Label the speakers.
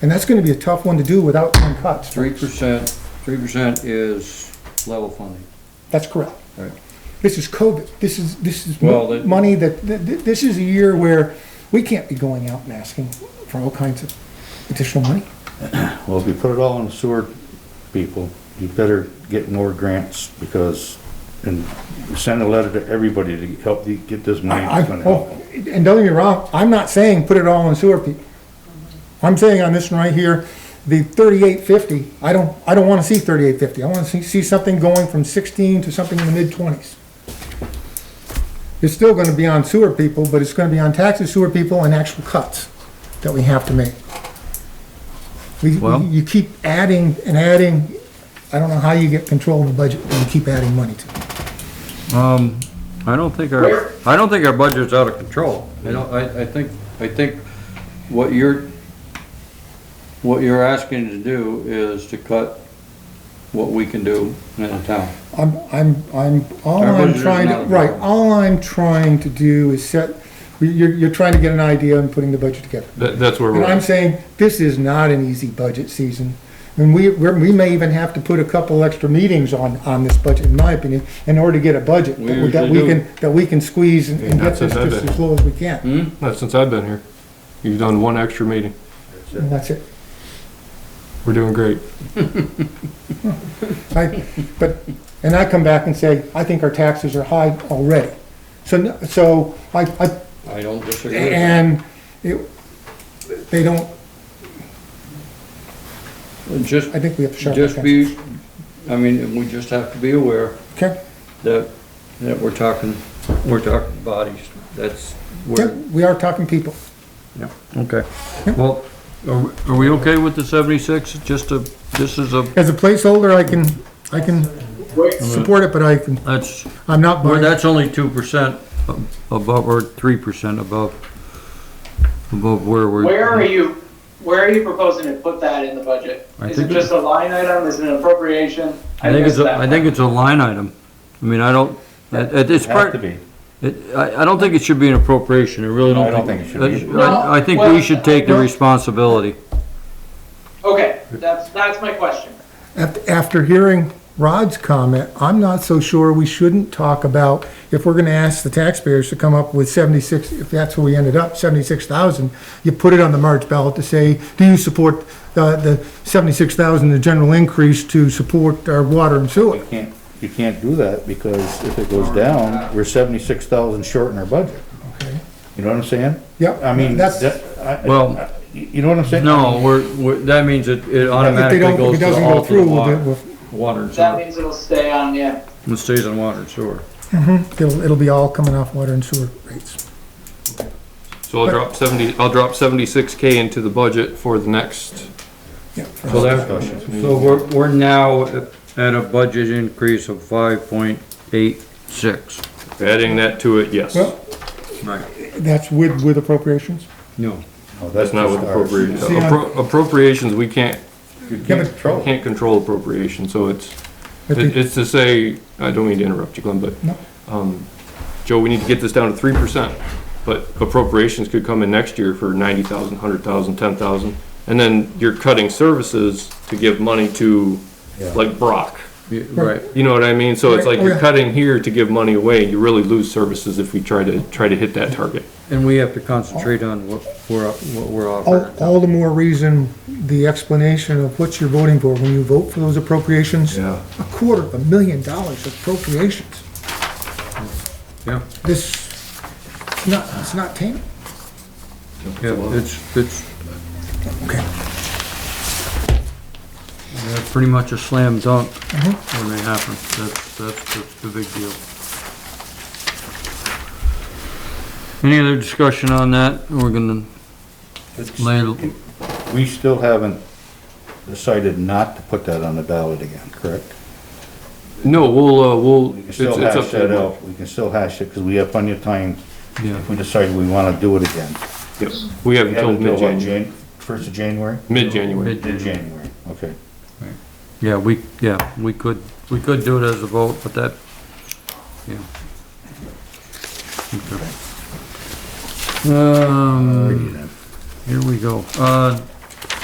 Speaker 1: And that's gonna be a tough one to do without some cuts.
Speaker 2: Three percent, three percent is level funding.
Speaker 1: That's correct.
Speaker 2: Right.
Speaker 1: This is COVID. This is, this is
Speaker 2: Well, that-
Speaker 1: money that, th- th- this is a year where we can't be going out and asking for all kinds of additional money.
Speaker 3: Well, if you put it all on the sewer people, you better get more grants because, and send a letter to everybody to help you get this money.
Speaker 1: I,
Speaker 3: It's
Speaker 1: I-
Speaker 3: gonna help
Speaker 1: oh,
Speaker 3: them.
Speaker 1: and don't get me wrong, I'm not saying put it all on sewer people. I'm saying on this one right here, the thirty-eight fifty, I don't, I don't wanna see thirty-eight fifty. I wanna see, see something going from sixteen to something in the mid-twenties. It's still gonna be on sewer people, but it's gonna be on taxes, sewer people, and actual cuts that we have to make. We,
Speaker 2: Well-
Speaker 1: you keep adding and adding, I don't know how you get control of the budget when you keep adding money to it.
Speaker 2: Um, I don't think our, I don't think our budget's out of control. I don't, I, I think, I think what you're, what you're asking to do is to cut what we can do in a town.
Speaker 1: I'm, I'm, I'm, all
Speaker 2: Our
Speaker 1: I'm
Speaker 2: budget is
Speaker 1: trying to,
Speaker 2: not a
Speaker 1: right,
Speaker 2: problem.
Speaker 1: all I'm trying to do is set, you're, you're trying to get an idea and putting the budget together.
Speaker 4: That, that's where
Speaker 1: And
Speaker 4: we're,
Speaker 1: I'm
Speaker 4: at.
Speaker 1: saying, this is not an easy budget season. And we, we're- we may even have to put a couple extra meetings on, on this budget, in my opinion, in order to get a budget
Speaker 2: We
Speaker 1: that we, that
Speaker 2: usually
Speaker 1: we
Speaker 2: do.
Speaker 1: can, that we can squeeze and and get
Speaker 4: That's Mm.
Speaker 1: this just
Speaker 4: another-
Speaker 1: as low as we can.
Speaker 2: Hmm?
Speaker 4: not since I've been here. You've done one extra meeting.
Speaker 1: And that's it.
Speaker 4: We're doing great.
Speaker 1: I, but, and I come back and say, I think our taxes are high already. So, no- so I, I
Speaker 2: I don't disagree. with that.
Speaker 1: And it, they don't,
Speaker 2: Just,
Speaker 1: I think we have to sharpen
Speaker 2: just
Speaker 1: pencils.
Speaker 2: be, I mean, we just have to be aware
Speaker 1: Okay,
Speaker 2: that, that we're talking, we're talking bodies. That's
Speaker 1: yeah,
Speaker 2: where.
Speaker 1: we are talking people.
Speaker 2: Okay. Well, are, are we okay with the seventy-six? Just a, this is a,
Speaker 1: As a placeholder, I can, I can support it, but I can,
Speaker 2: that's,
Speaker 1: I'm not
Speaker 2: well,
Speaker 1: buying.
Speaker 2: that's only two percent above, or three percent above, above where we're.
Speaker 5: Where are you, where are you proposing to put that in the budget?
Speaker 2: I
Speaker 5: Is it
Speaker 2: think it-
Speaker 5: just a line item, is it an appropriation?
Speaker 2: I think it's,
Speaker 5: missed
Speaker 2: a-
Speaker 5: that
Speaker 2: I think it's a line item. I mean, I don't, it- it- it's
Speaker 3: It has
Speaker 2: part,
Speaker 3: to be.
Speaker 2: it- I, I don't think it should be an appropriation. I really
Speaker 3: I
Speaker 2: don't
Speaker 3: don't
Speaker 2: think.
Speaker 3: think it should be
Speaker 2: that's-
Speaker 5: either.
Speaker 2: I, I think we should take the
Speaker 1: Well-
Speaker 2: responsibility.
Speaker 5: one. Okay, that's, that's my question.
Speaker 1: Af- After hearing Rod's comment, I'm not so sure we shouldn't talk about, if we're gonna ask the taxpayers to come up with seventy-six, if that's where we ended up, seventy-six thousand, you put it on the March ballot to say, do you support the, the seventy-six thousand, the general increase to support our water and sewer?
Speaker 3: You can't, you can't do that because if it goes down, we're seventy-six thousand short in our budget.
Speaker 1: Okay.
Speaker 3: You know what I'm saying?
Speaker 1: Yep.
Speaker 3: I mean,
Speaker 1: That's-
Speaker 3: that, I,
Speaker 2: Well-
Speaker 3: I- you know what I'm saying?
Speaker 2: No, we're, we're, that means it, it
Speaker 1: If they
Speaker 2: automatically
Speaker 1: don't, if
Speaker 2: goes
Speaker 1: it
Speaker 2: to
Speaker 1: doesn't
Speaker 2: all
Speaker 1: go
Speaker 2: to the
Speaker 1: through, we'll-
Speaker 2: water,
Speaker 1: we'll-
Speaker 2: water and
Speaker 5: That
Speaker 2: sewer.
Speaker 5: means it'll stay on, yeah.
Speaker 2: It stays on water and sewer.
Speaker 1: It'll, it'll be all coming off water and sewer rates.
Speaker 4: So I'll drop seventy, I'll drop seventy-six K into the budget for the next,
Speaker 1: Yeah.
Speaker 2: So that, so we're, we're now at a budget increase of five point eight six.
Speaker 4: adding that to it, yes.
Speaker 1: Well-
Speaker 2: Right.
Speaker 1: That's with, with appropriations?
Speaker 2: No.
Speaker 3: No,
Speaker 4: That's not what
Speaker 3: Oh, just ours.
Speaker 4: appropriations,
Speaker 1: See, I-
Speaker 4: appro- appropriations, we can't,
Speaker 3: You can't control.
Speaker 4: can't control appropriation, so it's,
Speaker 1: But
Speaker 4: it-
Speaker 1: the-
Speaker 4: it's to say, I don't mean to interrupt you, Glenn, but,
Speaker 1: No.
Speaker 4: um, Joe, we need to get this down to three percent. But appropriations could come in next year for ninety thousand, hundred thousand, ten thousand, and then you're cutting services to give money to,
Speaker 3: Yeah.
Speaker 4: like Brock.
Speaker 2: Right.
Speaker 4: You know what I mean? So it's
Speaker 1: Right,
Speaker 4: like you're
Speaker 1: okay.
Speaker 4: cutting here to give money away, you really lose services if we try to, try to hit that target.
Speaker 2: And we have to concentrate on what we're, what we're
Speaker 1: All,
Speaker 2: offering.
Speaker 1: all the more reason, the explanation of what you're voting for when you vote for those appropriations.
Speaker 4: Yeah.
Speaker 1: A quarter of a million dollars of appropriations.
Speaker 2: Yeah,
Speaker 1: This, it's not, it's not tame.
Speaker 2: yeah, it's, it's
Speaker 1: Okay.
Speaker 2: uh, pretty much a slam dunk when they happen. That's, that's, that's the big deal. Any other discussion on that? We're gonna lay,
Speaker 3: We still haven't decided not to put that on the ballot again, correct?
Speaker 4: No, we'll, uh, we'll,
Speaker 3: We can
Speaker 4: it's,
Speaker 3: still
Speaker 4: it's up
Speaker 3: hash
Speaker 4: to
Speaker 3: that
Speaker 4: them.
Speaker 3: out, we can still hash it, because we have plenty of time
Speaker 2: yeah.
Speaker 3: if we decide we wanna do it again.
Speaker 4: Yep. We have until mid-January,
Speaker 3: First of January?
Speaker 4: mid-January.
Speaker 2: Mid- January.
Speaker 3: January, okay.
Speaker 2: Yeah, we, yeah, we could, we could do it as a vote, but that, yeah. Okay. Um, here we go. Uh,